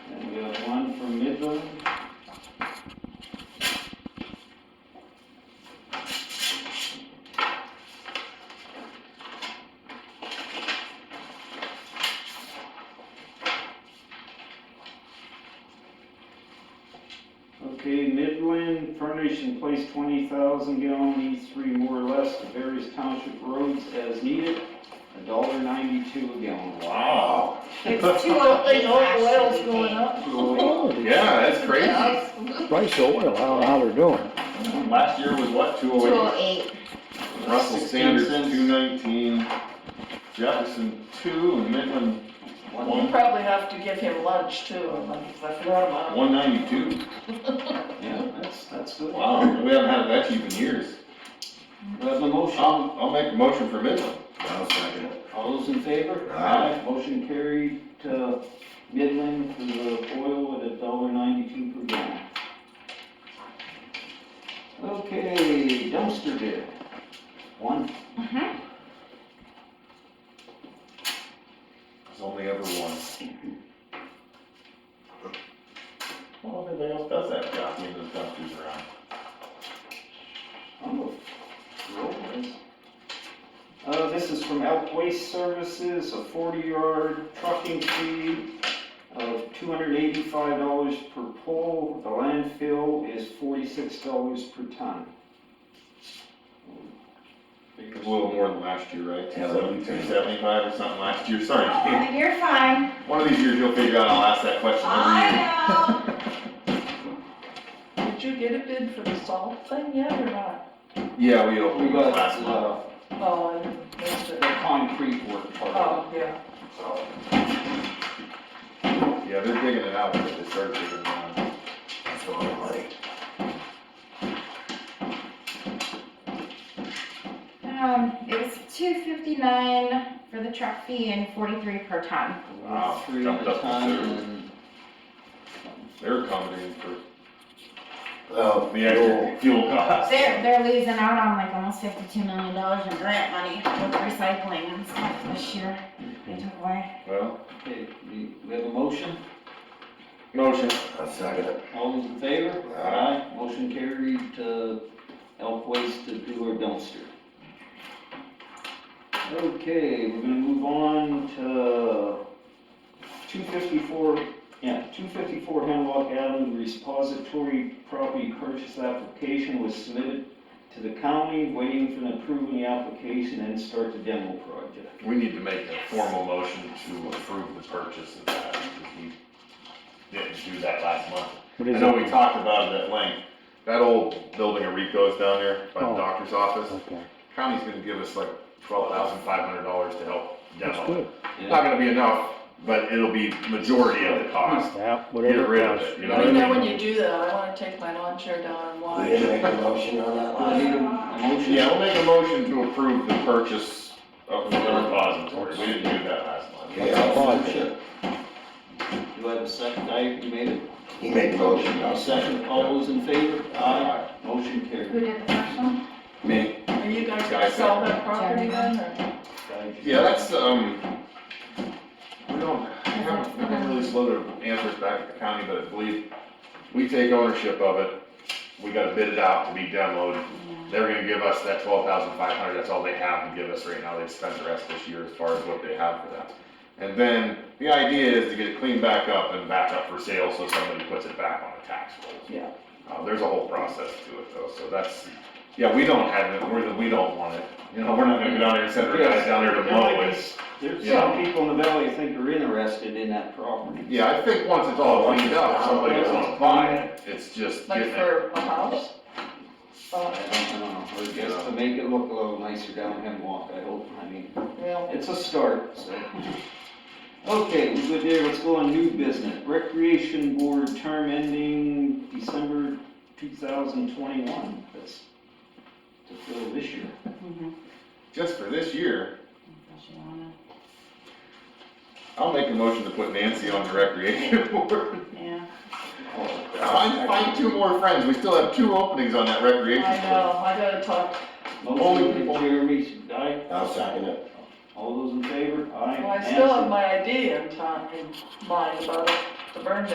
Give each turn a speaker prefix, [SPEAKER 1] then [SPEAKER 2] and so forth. [SPEAKER 1] Okay, Midland furnish and place twenty thousand gallon E three more or less to various township roads as needed, a dollar ninety-two a gallon.
[SPEAKER 2] Wow.
[SPEAKER 3] It's too old.
[SPEAKER 4] They know
[SPEAKER 3] to
[SPEAKER 4] oil's
[SPEAKER 3] actually
[SPEAKER 4] going up.
[SPEAKER 3] be.
[SPEAKER 2] Yeah, that's crazy.
[SPEAKER 5] Price of oil, I don't know how they're doing.
[SPEAKER 2] Last year was what, two
[SPEAKER 3] Two
[SPEAKER 2] oh
[SPEAKER 3] oh eight,
[SPEAKER 2] eight? Russell Sanders, two nineteen, Jefferson, two, and Midland,
[SPEAKER 4] We'll probably have to give him lunch too, I'm like, I forgot about him.
[SPEAKER 2] one ninety-two.
[SPEAKER 1] Yeah, that's, that's good.
[SPEAKER 2] Wow, we haven't had that cheap in years. Um,
[SPEAKER 1] Do I have a motion?
[SPEAKER 2] I'll, I'll make a motion for Midland.
[SPEAKER 6] I'll second it.
[SPEAKER 1] All those in favor?
[SPEAKER 6] Aye.
[SPEAKER 1] Motion carried to Midland for the oil at a dollar ninety-two per gallon. Okay, dumpster bid. One,
[SPEAKER 3] Mm-hmm.
[SPEAKER 2] There's only ever one. Well, everybody else does that, got me those dumpsters around.
[SPEAKER 1] I'm a roll this. Uh, this is from Elk Waste Services, a forty-yard trucking fee of two hundred eighty-five dollars per pole. The landfill is forty-six dollars per ton.
[SPEAKER 2] It was a little more than last year, right?
[SPEAKER 6] Yeah, that'll be
[SPEAKER 2] Two seventy-five or something last year, sorry. Jane.
[SPEAKER 3] you're fine,
[SPEAKER 2] One of these years you'll figure out I'll ask that question every year.
[SPEAKER 3] I know.
[SPEAKER 4] Did you get a bid for the salt thing yet or not?
[SPEAKER 2] Yeah, we
[SPEAKER 1] We
[SPEAKER 2] opened
[SPEAKER 1] got,
[SPEAKER 2] it last month.
[SPEAKER 1] uh,
[SPEAKER 4] Oh, I missed
[SPEAKER 1] the
[SPEAKER 4] it.
[SPEAKER 1] concrete work part of it.
[SPEAKER 4] Oh, yeah.
[SPEAKER 2] so. Yeah, they're digging it out, but they started digging it out.
[SPEAKER 6] That's all I'm like.
[SPEAKER 3] Um, it was two fifty-nine for the truck fee and forty-three per ton.
[SPEAKER 2] Wow,
[SPEAKER 1] Three at
[SPEAKER 2] jumped
[SPEAKER 1] a
[SPEAKER 2] up to
[SPEAKER 1] time
[SPEAKER 2] two.
[SPEAKER 1] and
[SPEAKER 2] They're accommodating for
[SPEAKER 6] Well,
[SPEAKER 2] the extra fuel costs.
[SPEAKER 3] They're, they're losing out on like almost fifty-two million dollars in grant money with recycling and stuff this year. They took away.
[SPEAKER 2] Well,
[SPEAKER 1] Okay, we, we have a motion,
[SPEAKER 2] motion.
[SPEAKER 6] I'll second it.
[SPEAKER 1] all those in favor?
[SPEAKER 2] Aye.
[SPEAKER 1] Motion carried to Elk Waste to do our dumpster. Okay, we're gonna move on to two fifty-four, yeah, two fifty-four Hemlock Avenue Repository Property Purchase Application was submitted to the county, waiting for an approval of the application and start the demo project.
[SPEAKER 2] We need to make a formal motion to approve the purchase of that, because we didn't do that last month.
[SPEAKER 5] What
[SPEAKER 2] I
[SPEAKER 5] is
[SPEAKER 2] know we
[SPEAKER 5] it?
[SPEAKER 2] talked about it at length, that old building of Rico's down there by the
[SPEAKER 5] Oh.
[SPEAKER 2] doctor's office,
[SPEAKER 5] Okay,
[SPEAKER 2] county's gonna give us like twelve thousand five hundred dollars to help
[SPEAKER 5] that's
[SPEAKER 2] demo. it.
[SPEAKER 5] good.
[SPEAKER 2] Not gonna be enough, but it'll be majority of the cost.
[SPEAKER 5] Yeah,
[SPEAKER 2] Get
[SPEAKER 5] whatever
[SPEAKER 2] rid of
[SPEAKER 5] it
[SPEAKER 2] it,
[SPEAKER 5] costs.
[SPEAKER 2] you know
[SPEAKER 4] You
[SPEAKER 2] what
[SPEAKER 4] know,
[SPEAKER 2] I
[SPEAKER 4] when
[SPEAKER 2] mean?
[SPEAKER 4] you do that, I wanna take my lawn chair down and
[SPEAKER 6] We didn't
[SPEAKER 4] watch.
[SPEAKER 6] make a motion on that
[SPEAKER 1] Do I
[SPEAKER 6] last.
[SPEAKER 1] need a a motion?
[SPEAKER 2] Yeah, we'll make a motion to approve the purchase of the repository, we didn't do that last month.
[SPEAKER 6] Okay, I'll second it.
[SPEAKER 1] Do I have a second? I, you made it?
[SPEAKER 6] He made the motion, I'll second
[SPEAKER 1] Second,
[SPEAKER 6] it.
[SPEAKER 1] all those in favor?
[SPEAKER 2] Aye.
[SPEAKER 1] Motion
[SPEAKER 3] Who
[SPEAKER 1] carried.
[SPEAKER 3] did the first one?
[SPEAKER 6] Me.
[SPEAKER 4] Are you guys
[SPEAKER 2] Guys,
[SPEAKER 4] gonna sell that property then, or?
[SPEAKER 2] Yeah, that's, um, we don't, I haven't, I haven't really slowed it, answers back to the county, but I believe we take ownership of it. We gotta bid it out to be demoed. They're gonna give us that twelve thousand five hundred, that's all they have to give us right now. They've spent the rest this year as far as what they have for that. And then the idea is to get it cleaned back up and back up for sale so somebody puts it back on the tax rolls.
[SPEAKER 1] Yeah.
[SPEAKER 2] Uh, there's a whole process to it though, so that's, yeah, we don't have it, we're, the- we don't want it. You know, we're not gonna go down there and send our guys down there to
[SPEAKER 1] There
[SPEAKER 2] mow
[SPEAKER 1] might
[SPEAKER 2] it.
[SPEAKER 1] be s- There's
[SPEAKER 2] Yeah.
[SPEAKER 1] some people in the valley think are interested in that property.
[SPEAKER 2] Yeah, I think once it's all cleaned up, somebody will wanna buy it, it's just
[SPEAKER 4] Like
[SPEAKER 2] getting it.
[SPEAKER 4] for a house?
[SPEAKER 1] I
[SPEAKER 4] Oh,
[SPEAKER 1] don't know, or just to make it look a little nicer down Hemlock, I hope, I mean,
[SPEAKER 4] yeah.
[SPEAKER 1] it's a start, so. Okay, we're good there, let's go on new business, recreation board term ending December two thousand twenty-one, that's to fill this year.
[SPEAKER 3] Mhm.
[SPEAKER 2] Just for this year,
[SPEAKER 3] Don't you wanna-
[SPEAKER 2] I'll make a motion to put Nancy on the recreation board.
[SPEAKER 3] Yeah.
[SPEAKER 1] Oh,
[SPEAKER 2] Find, find two more friends, we still have two openings on that
[SPEAKER 4] I
[SPEAKER 2] recreation board.
[SPEAKER 4] know, I gotta talk,
[SPEAKER 2] Only
[SPEAKER 1] Motion by
[SPEAKER 2] people-
[SPEAKER 1] Jeremy, aye,
[SPEAKER 6] I'll second it.
[SPEAKER 1] all those in favor, aye.
[SPEAKER 4] well, I still
[SPEAKER 1] Nancy?
[SPEAKER 4] have my idea in time, in mind about the burn ban.